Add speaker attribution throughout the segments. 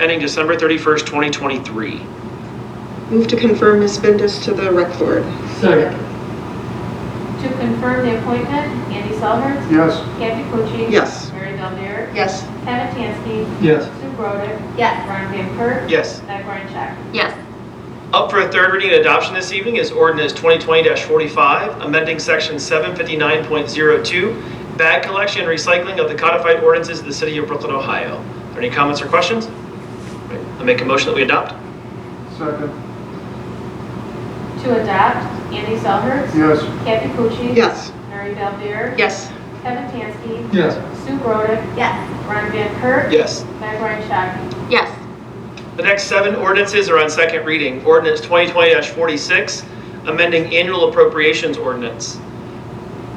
Speaker 1: ending December 31st, 2023.
Speaker 2: Move to confirm Ms. Bendis to the rec board.
Speaker 3: Second.
Speaker 4: To confirm the appointment, Andy Selhertz,
Speaker 3: Yes.
Speaker 4: Kathy Pucci.
Speaker 2: Yes.
Speaker 4: Mary Del Dare,
Speaker 2: Yes.
Speaker 4: Kevin Tansky,
Speaker 3: Yes.
Speaker 4: Sue Brodick,
Speaker 5: Yes.
Speaker 4: Ron Van Kirk,
Speaker 1: Yes.
Speaker 4: Meg Ryan Shaki.
Speaker 5: Yes.
Speaker 1: Up for a third reading and adoption this evening is ordinance 2020-45, amending section 759.02, bag collection and recycling of the codified ordinances of the city of Brooklyn, Ohio. Are there any comments or questions? Right, I make a motion that we adopt?
Speaker 3: Second.
Speaker 4: To adopt, Andy Selhertz,
Speaker 3: Yes.
Speaker 4: Kathy Pucci.
Speaker 2: Yes.
Speaker 4: Mary Del Dare,
Speaker 2: Yes.
Speaker 4: Kevin Tansky,
Speaker 3: Yes.
Speaker 4: Sue Brodick,
Speaker 5: Yes.
Speaker 4: Ron Van Kirk,
Speaker 1: Yes.
Speaker 4: Meg Ryan Shaki.
Speaker 5: Yes.
Speaker 1: The next seven ordinances are on second reading. Ordinance 2020-46, amending annual appropriations ordinance.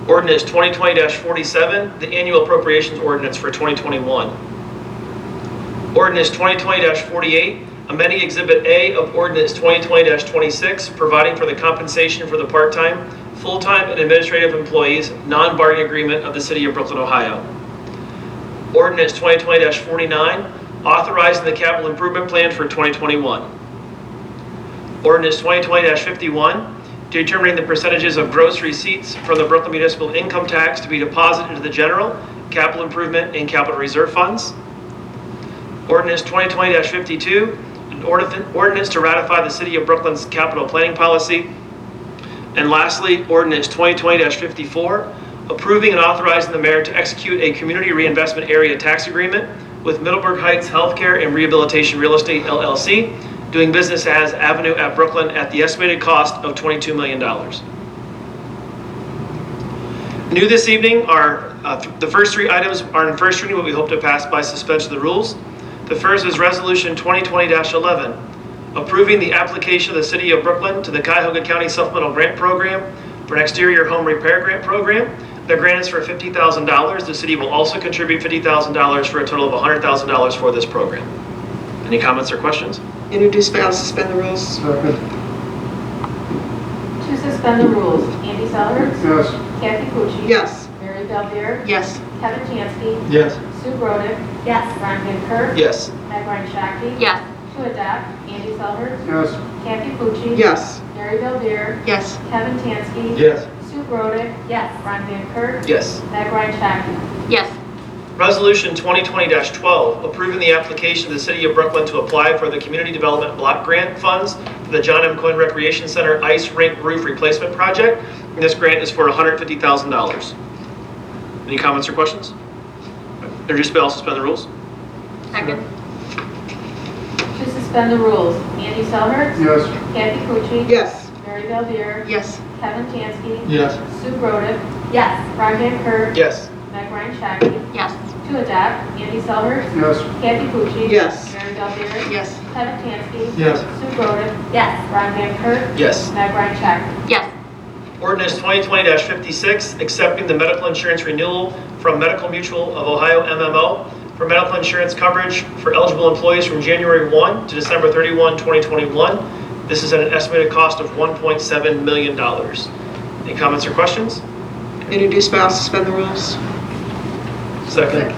Speaker 1: Ordinance 2020-47, the annual appropriations ordinance for 2021. Ordinance 2020-48, amending Exhibit A of Ordinance 2020-26, providing for the compensation for the part-time, full-time, and administrative employees, non-bargaining agreement of the City of Brooklyn, Ohio. Ordinance 2020-49, authorizing the capital improvement plan for 2021. Ordinance 2020-51, determining the percentages of gross receipts from the Brooklyn Municipal Income Tax to be deposited into the general, capital improvement, and capital reserve funds. Ordinance 2020-52, an ordin- ordinance to ratify the City of Brooklyn's capital planning policy. And lastly, ordinance 2020-54, approving and authorizing the mayor to execute a community reinvestment area tax agreement with Middleburg Heights Healthcare and Rehabilitation Real Estate LLC, doing business as Avenue at Brooklyn at the estimated cost of $22 million. New this evening are, uh, th- the first three items are in first reading, but we hope to pass by suspension of the rules. The first is Resolution 2020-11, approving the application of the City of Brooklyn to the Cuyahoga County Supplemental Grant Program for an exterior home repair grant program. The grant is for $50,000. The city will also contribute $50,000 for a total of $100,000 for this program. Any comments or questions?
Speaker 2: Introduce by all, suspend the rules.
Speaker 3: Second.
Speaker 4: To suspend the rules, Andy Selhertz,
Speaker 3: Yes.
Speaker 4: Kathy Pucci.
Speaker 2: Yes.
Speaker 4: Mary Del Dare,
Speaker 2: Yes.
Speaker 4: Kevin Tansky,
Speaker 3: Yes.
Speaker 4: Sue Brodick,
Speaker 5: Yes.
Speaker 4: Ron Van Kirk,
Speaker 1: Yes.
Speaker 4: Meg Ryan Shaki.
Speaker 5: Yes.
Speaker 4: To adopt, Andy Selhertz,
Speaker 3: Yes.
Speaker 4: Kathy Pucci.
Speaker 2: Yes.
Speaker 4: Mary Del Dare,
Speaker 2: Yes.
Speaker 4: Kevin Tansky.
Speaker 3: Yes.
Speaker 4: Sue Brodick,
Speaker 5: Yes.
Speaker 4: Ron Van Kirk,
Speaker 1: Yes.
Speaker 4: Meg Ryan Shaki.
Speaker 5: Yes.
Speaker 1: Resolution 2020-12, approving the application of the City of Brooklyn to apply for the Community Development Block Grant Funds for the John M. Cohen Recreation Center Ice Rink Roof Replacement Project. And This grant is for $150,000. Any comments or questions? Introduced by all, suspend the rules?
Speaker 5: Second.
Speaker 4: To suspend the rules, Andy Selhertz,
Speaker 3: Yes.
Speaker 4: Kathy Pucci.
Speaker 2: Yes.
Speaker 4: Mary Del Dare,
Speaker 2: Yes.
Speaker 4: Kevin Tansky.
Speaker 3: Yes.
Speaker 4: Sue Brodick,
Speaker 5: Yes.
Speaker 4: Ron Van Kirk,
Speaker 1: Yes.
Speaker 4: Meg Ryan Shaki.
Speaker 5: Yes.
Speaker 4: To adopt, Andy Selhertz,
Speaker 3: Yes.
Speaker 4: Kathy Pucci.
Speaker 2: Yes.
Speaker 4: Mary Del Dare,
Speaker 2: Yes.
Speaker 4: Kevin Tansky.
Speaker 3: Yes.
Speaker 4: Sue Brodick,
Speaker 5: Yes.
Speaker 4: Ron Van Kirk,
Speaker 1: Yes.
Speaker 4: Meg Ryan Shaki.
Speaker 5: Yes.
Speaker 1: Ordinance 2020-56, accepting the medical insurance renewal from Medical Mutual of Ohio MMO for medical insurance coverage for eligible employees from January 1 to December 31, 2021. This is at an estimated cost of $1.7 million. Any comments or questions?
Speaker 2: Introduce by all, suspend the rules.
Speaker 1: Second.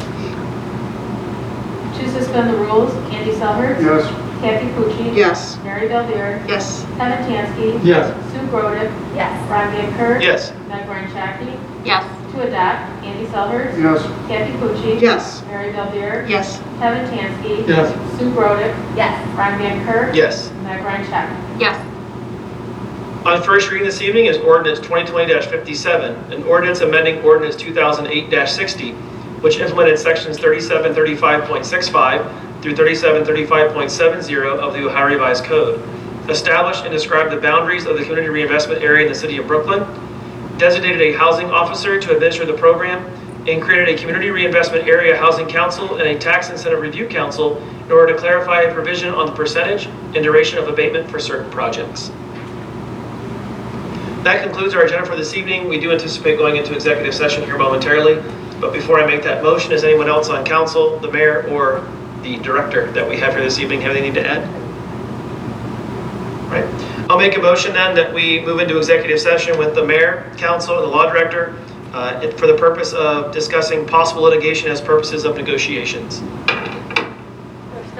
Speaker 4: To suspend the rules, Andy Selhertz.
Speaker 3: Yes.
Speaker 4: Kathy Pucci.
Speaker 2: Yes.
Speaker 4: Mary Del Dare,
Speaker 2: Yes.
Speaker 4: Kevin Tansky.
Speaker 3: Yes.
Speaker 4: Sue Brodick,
Speaker 5: Yes.
Speaker 4: Ron Van Kirk.
Speaker 1: Yes.
Speaker 4: Meg Ryan Shaki.
Speaker 5: Yes.
Speaker 4: To adopt, Andy Selhertz,
Speaker 3: Yes.
Speaker 4: Kathy Pucci.
Speaker 2: Yes.
Speaker 4: Mary Del Dare,
Speaker 2: Yes.
Speaker 4: Kevin Tansky.
Speaker 3: Yes.
Speaker 4: Sue Brodick,
Speaker 5: Yes.
Speaker 4: Ron Van Kirk.
Speaker 1: Yes.
Speaker 4: Meg Ryan Shaki.
Speaker 5: Yes.
Speaker 1: On first reading this evening is ordinance 2020-57, an ordinance amending ordinance 2008-60, which implemented sections 3735.65 through 3735.70 of the Ohio Revised Code, established and described the boundaries of the community reinvestment area in the city of Brooklyn, designated a housing officer to administer the program, and created a community reinvestment area housing council and a tax incentive review council in order to clarify a provision on the percentage and duration of abatement for certain projects. That concludes our agenda for this evening. We do anticipate going into executive session here momentarily. But before I make that motion, is anyone else on council, the mayor, or the director that we have here this evening have anything to add? Right. I'll make a motion then that we move into executive session with the mayor, council, and the law director uh, for the purpose of discussing possible litigation as purposes of negotiations.